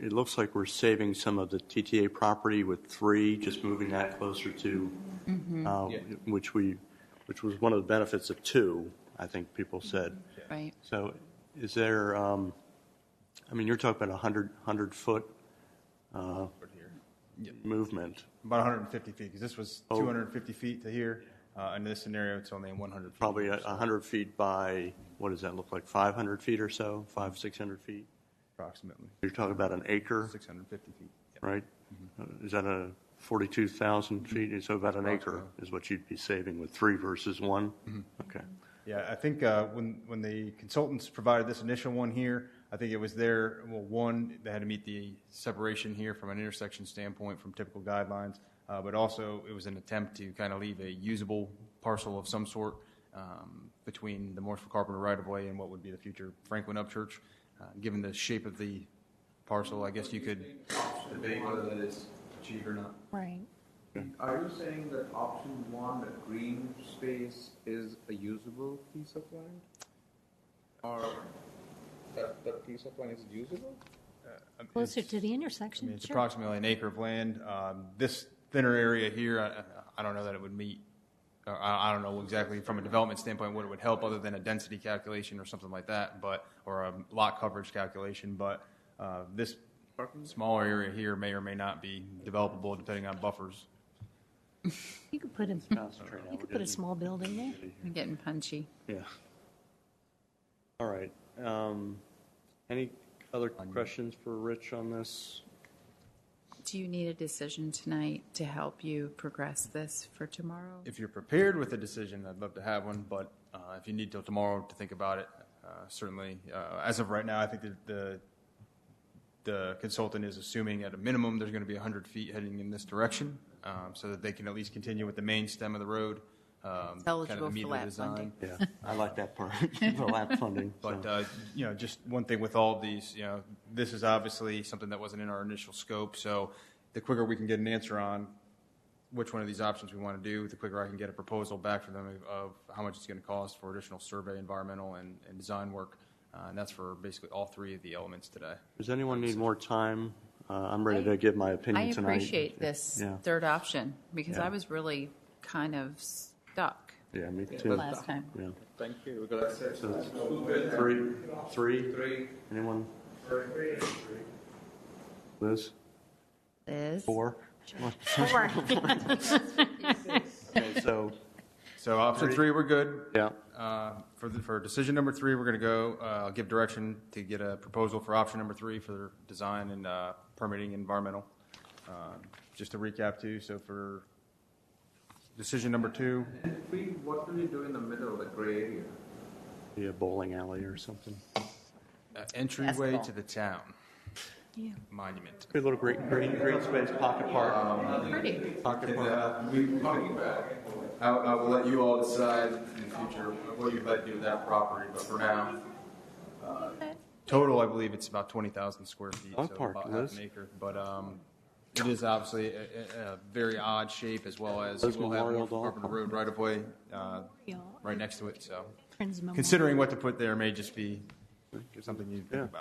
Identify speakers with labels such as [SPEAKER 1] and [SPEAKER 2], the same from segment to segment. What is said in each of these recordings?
[SPEAKER 1] it looks like we're saving some of the TTA property with three, just moving that closer to, uh, which we, which was one of the benefits of two, I think people said.
[SPEAKER 2] right?
[SPEAKER 1] So is there, um, I mean, you're talking about a hundred, hundred-foot movement,
[SPEAKER 3] About 150 feet, because this was 250 feet to here. Uh, In this scenario, it's only 100 feet.
[SPEAKER 1] probably uh, a a hundred feet by, what does that look like, five hundred feet or so, five, six hundred feet?
[SPEAKER 3] Approximately,
[SPEAKER 1] You're talking about an acre,
[SPEAKER 3] 650 feet. Yeah.
[SPEAKER 1] right? Uh, Is that a forty-two thousand feet, so Mm-hmm. about an acre is what you'd be saving with three versus one? Okay.
[SPEAKER 3] Yeah, I think uh, when, when the consultants provided this initial one here, I think it was there, well, one, they had to meet the separation here from an intersection standpoint from typical guidelines, uh, but also it was an attempt to kind of leave a usable parcel of some sort um, between the Morrisville Carpenter right-of-way and what would be the future Franklin Upchurch. Uh, Given the shape of the parcel, I guess you could debate whether that is achieved or not.
[SPEAKER 2] Right.
[SPEAKER 4] Are you saying that option one, the green space, is a usable piece of land? Or that, that piece of land is usable?
[SPEAKER 2] Closer to the
[SPEAKER 3] I
[SPEAKER 2] intersection,
[SPEAKER 3] mean, it's
[SPEAKER 2] sure.
[SPEAKER 3] approximately an acre of land. Um, This thinner area here, I- I don't know that it would meet, or I I don't know exactly from a development standpoint what it would help, other than a density calculation or something like that, but, or a lot coverage calculation, but uh, this smaller area here may or may not be developable depending on buffers.
[SPEAKER 2] You could put a, you could put a small building there.
[SPEAKER 5] I'm getting punchy.
[SPEAKER 1] Yeah. All right. Um, any other questions for Rich on this?
[SPEAKER 5] Do you need a decision tonight to help you progress this for tomorrow?
[SPEAKER 3] If you're prepared with a decision, I'd love to have one, but uh, if you need till tomorrow to think about it, uh, certainly, uh, as of right now, I think that the, the consultant is assuming at a minimum, there's going to be 100 feet heading in this direction, um, so that they can at least continue with the main stem of the road. um, kind of the
[SPEAKER 5] eligible for
[SPEAKER 3] meat of the
[SPEAKER 5] lap
[SPEAKER 3] design.
[SPEAKER 5] funding.
[SPEAKER 1] Yeah, I like that part, the lap funding.
[SPEAKER 3] But,
[SPEAKER 1] so.
[SPEAKER 3] uh, you know, just one thing with all of these, you know, this is obviously something that wasn't in our initial scope, so the quicker we can get an answer on which one of these options we want to do, the quicker I can get a proposal back from them of how much it's going to cost for additional survey, environmental, and, and design work. Uh, and that's for basically all three of the elements today.
[SPEAKER 1] Does anyone need more time? Uh, I'm ready to give my
[SPEAKER 5] I
[SPEAKER 1] opinion tonight.
[SPEAKER 5] appreciate this
[SPEAKER 1] Yeah,
[SPEAKER 5] third option because
[SPEAKER 1] Yeah.
[SPEAKER 5] I was really kind of stuck
[SPEAKER 1] yeah, me too.
[SPEAKER 5] last time.
[SPEAKER 1] Yeah.
[SPEAKER 4] Thank you, because I said,
[SPEAKER 1] Three, three,
[SPEAKER 4] three,
[SPEAKER 1] anyone? Liz?
[SPEAKER 5] Liz?
[SPEAKER 1] Four? Okay, So,
[SPEAKER 3] So option three, we're good.
[SPEAKER 1] yeah,
[SPEAKER 3] Uh, For, the- for decision number three, we're going to go, uh, I'll give direction to get a proposal for option number three for design and uh, permitting environmental. Um, Just to recap too, so for decision number two,
[SPEAKER 4] three, what will you do in the middle, the gray area?
[SPEAKER 1] be a bowling alley or something.
[SPEAKER 3] uh, entryway to the town monument.
[SPEAKER 1] A little green, green, green space, pocket park.
[SPEAKER 5] Pretty.
[SPEAKER 3] I, I will let you all decide in the future what you'd like to do with that property, but for now. uh, Total, I believe it's about twenty thousand square feet, so
[SPEAKER 1] Dog park,
[SPEAKER 3] about half
[SPEAKER 1] Liz.
[SPEAKER 3] an acre, but, um, it is obviously a, a, a very odd shape as well as you
[SPEAKER 1] Liz
[SPEAKER 3] will have
[SPEAKER 1] Memorial
[SPEAKER 3] North
[SPEAKER 1] Dog
[SPEAKER 3] Carpenter
[SPEAKER 1] Park.
[SPEAKER 3] Road right of way, uh,
[SPEAKER 2] Y'all,
[SPEAKER 3] right next to it, so.
[SPEAKER 2] Friends Memorial.
[SPEAKER 3] Considering what to put there may just be something you
[SPEAKER 1] Yeah.
[SPEAKER 3] think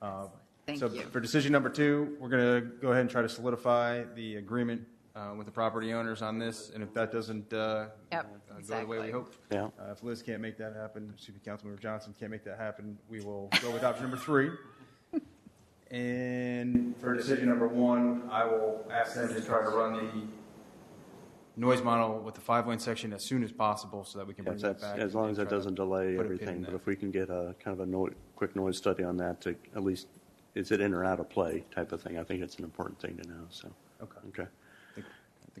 [SPEAKER 3] about.
[SPEAKER 5] Thank
[SPEAKER 3] So
[SPEAKER 5] you.
[SPEAKER 3] for decision number two, we're going to go ahead and try to solidify the agreement uh, with the property owners on this, and if that doesn't uh,
[SPEAKER 5] Yep,
[SPEAKER 3] uh, go the way we
[SPEAKER 5] exactly.
[SPEAKER 3] hope.
[SPEAKER 1] Yeah.
[SPEAKER 3] uh, If Liz can't make that happen, excuse me, Councilmember Johnson can't make that happen, we will go with option number three. And for decision number one, I will ask them to try to run the noise model with the five-lane section as soon as possible so that we can bring
[SPEAKER 1] Yes,
[SPEAKER 3] that
[SPEAKER 1] that's-
[SPEAKER 3] back.
[SPEAKER 1] As long
[SPEAKER 3] and
[SPEAKER 1] as that
[SPEAKER 3] try to
[SPEAKER 1] doesn't delay
[SPEAKER 3] put a pin in
[SPEAKER 1] everything,
[SPEAKER 3] that.
[SPEAKER 1] but if we can get a kind of a noi- quick noise study on that to at least, is it in or out of play type of thing, I think it's an important thing to know, so.
[SPEAKER 3] Okay.
[SPEAKER 1] Okay,
[SPEAKER 3] I think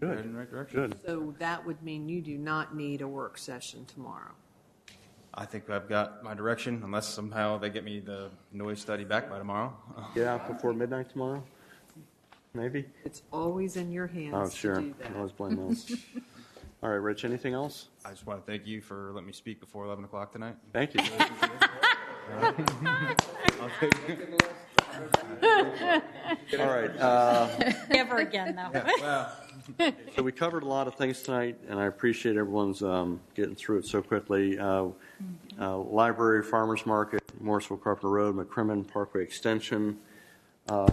[SPEAKER 3] we're
[SPEAKER 1] Good.
[SPEAKER 3] headed in the right direction.
[SPEAKER 1] good.
[SPEAKER 6] So that would mean you do not need a work session tomorrow.
[SPEAKER 3] I think I've got my direction, unless somehow they get me the noise study back by tomorrow.
[SPEAKER 1] Get out before midnight tomorrow, maybe?
[SPEAKER 6] It's always in your
[SPEAKER 1] Oh,
[SPEAKER 6] hands to
[SPEAKER 1] sure,
[SPEAKER 6] do
[SPEAKER 1] I always
[SPEAKER 6] that.
[SPEAKER 1] blame those. All right, Rich, anything else?
[SPEAKER 3] I just want to thank you for letting me speak before 11 o'clock tonight.
[SPEAKER 1] Thank you. All right, uh,
[SPEAKER 2] Never again, though.
[SPEAKER 1] So we covered a lot of things tonight, and I appreciate everyone's um, getting through it so quickly. Uh, uh, Library, Farmers Market, Morrisville Carpenter Road, McCrimmon Parkway Extension, Uh,